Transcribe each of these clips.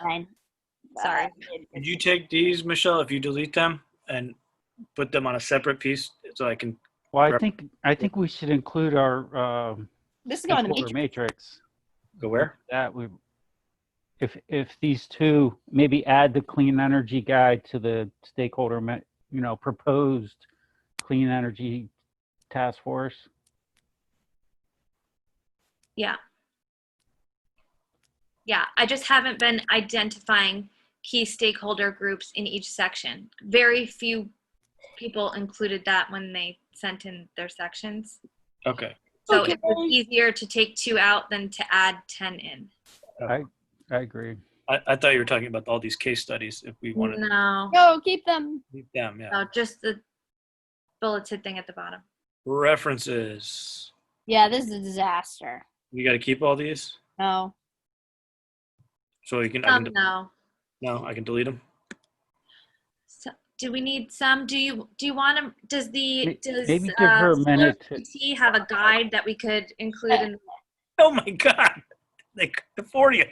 Fine. Sorry. Could you take these, Michelle, if you delete them and put them on a separate piece so I can, Well, I Rep- think, I think we should include our um, This is going to stakeholder matrix. matrix. go where? That we, if, if these two, maybe add the clean energy guide to the stakeholder, ma- you know, proposed clean energy task force. Yeah. Yeah, I just haven't been identifying key stakeholder groups in each section. Very few people included that when they sent in their sections. Okay. So it was easier to take two out than to add 10 in. I agree. I, I thought you were talking about all these case studies, if we wanted to No, No, keep them. keep them, yeah. no, just the bulleted thing at the bottom. References. Yeah, this is a disaster. You got to keep all these No. so you can, I Some, can de- no. no, I can delete them. So, do we need some? Do you do you want to? Does the May- does uh, maybe give her a Solar minute to- PT have a guide that we could include in? Uh, Oh my God. Like the 40th.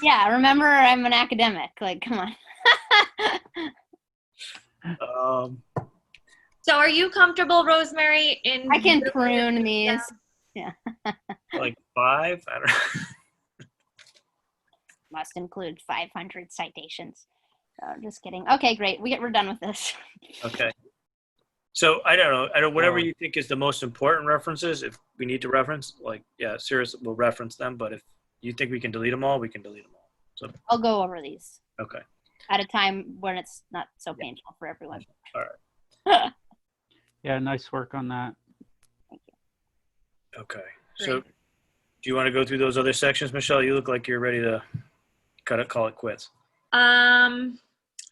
Yeah, remember I'm an academic. Like, come on. Um, So, are you comfortable, Rosemary? In I can prune these. like five. I don't Must include 500 citations. Oh, just kidding. Okay, great. We get, we're done with this. Okay. So I don't know. I don't. Whatever Um, you think is the most important references, if we need to reference, like yeah, seriously, we'll reference them. But if you think we can delete them all, we can delete them all. I'll go over these Okay. at a time when it's not so painful for everyone. Yeah, nice work on that. Okay. So, do you want to go through those other sections, Michelle? You look like you're ready to cut it, call it quits. Um,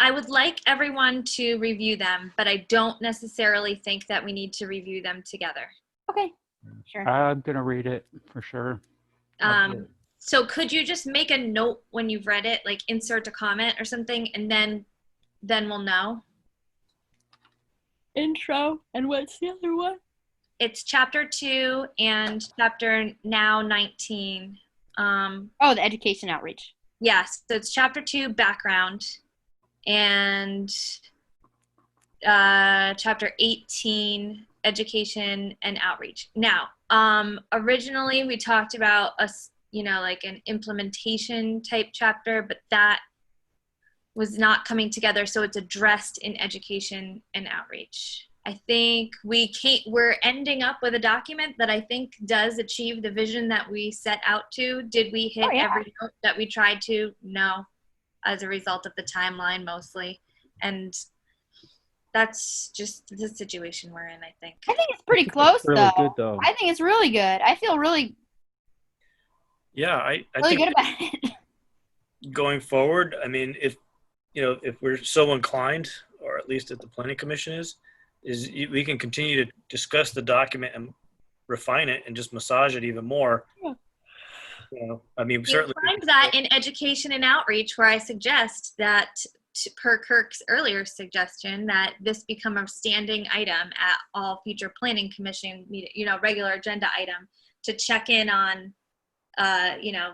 I would like everyone to review them, but I don't necessarily think that we need to review them together. Okay, sure. I'm gonna read it for sure. I'll do Um, so could you just make a note when you've read it, like insert a comment or something, and then then we'll know. Intro. And what's the other one? It's chapter two and chapter now nineteen. Um, Oh, the education outreach. yes, so it's chapter two background, and uh, chapter 18 education and outreach now um originally we talked about us you know like an implementation type chapter but that was not coming together so it's addressed in education and outreach i think we can't we're ending up with a document that i think does achieve the vision that we set out to did we hit Oh, yeah. every note that we tried to no as a result of the timeline mostly and that's just the situation we're in, I think. I think it's pretty It's close, really though. good, though. I think it's really good. I feel really, Yeah, I, I really think good about it. going forward, I mean, if you know, if we're so inclined, or at least if the planning commission is, is y- we can continue to discuss the document and refine it and just massage it even more. Yeah. You know, I mean, You certainly. find that in education and outreach, where I suggest that, t- per Kirk's earlier suggestion, that this become a standing item at all future planning commission, meet- you know, regular agenda item to check in on, uh, you know,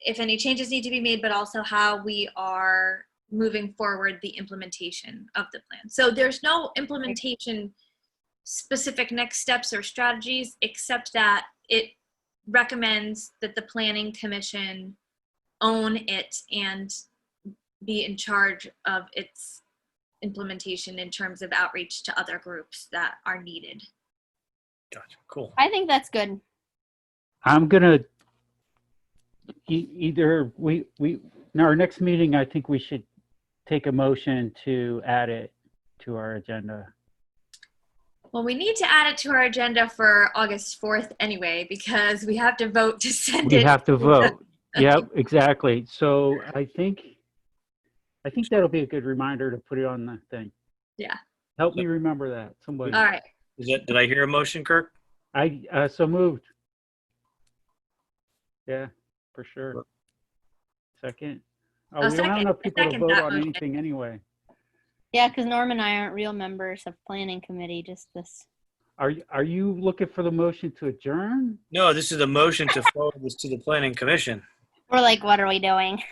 if any changes need to be made, but also how we are moving forward the implementation of the plan. So there's no implementation specific next steps or strategies, except that it recommends that the planning commission own it and be in charge of its implementation in terms of outreach to other groups that are needed. Gotcha. Cool. I think that's good. I'm gonna e- either we we in our next meeting. I think we should take a motion to add it to our agenda. Well, we need to add it to our agenda for August 4th anyway, because we have to vote to send We it. have to vote. Yep, exactly. So I think I think that'll be a good reminder to put it on the thing. Yeah. Help me remember that. Somebody. All right, Is that, did I hear a motion, Kirk? I uh, so moved. Yeah, for sure. Second. I'll Oh, we don't have second- enough I people to second vote that on motion. anything anyway. Yeah, because Norm and I aren't real members of planning committee. Just this. Are, y- are you looking for the motion to adjourn? No, this is a motion to forward this to the planning commission. We're like, what are we doing?